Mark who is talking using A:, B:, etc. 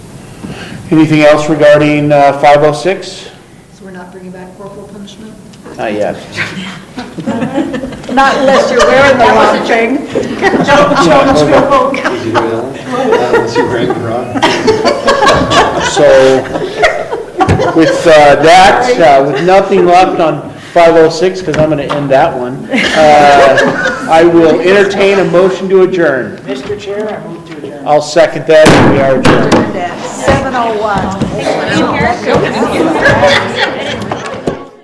A: Anything else regarding uh, 506?
B: So we're not bringing back corporal punishment?
A: Not yet.
C: Not unless you're wearing the wrong thing.
D: Did you hear that? Unless you're Greg and Rob.
A: So with uh, that, uh, with nothing left on 506, because I'm going to end that one, uh, I will entertain a motion to adjourn.
E: Mr. Chair, I move to adjourn.
A: I'll second that, and we are adjourned.
C: Seven oh one.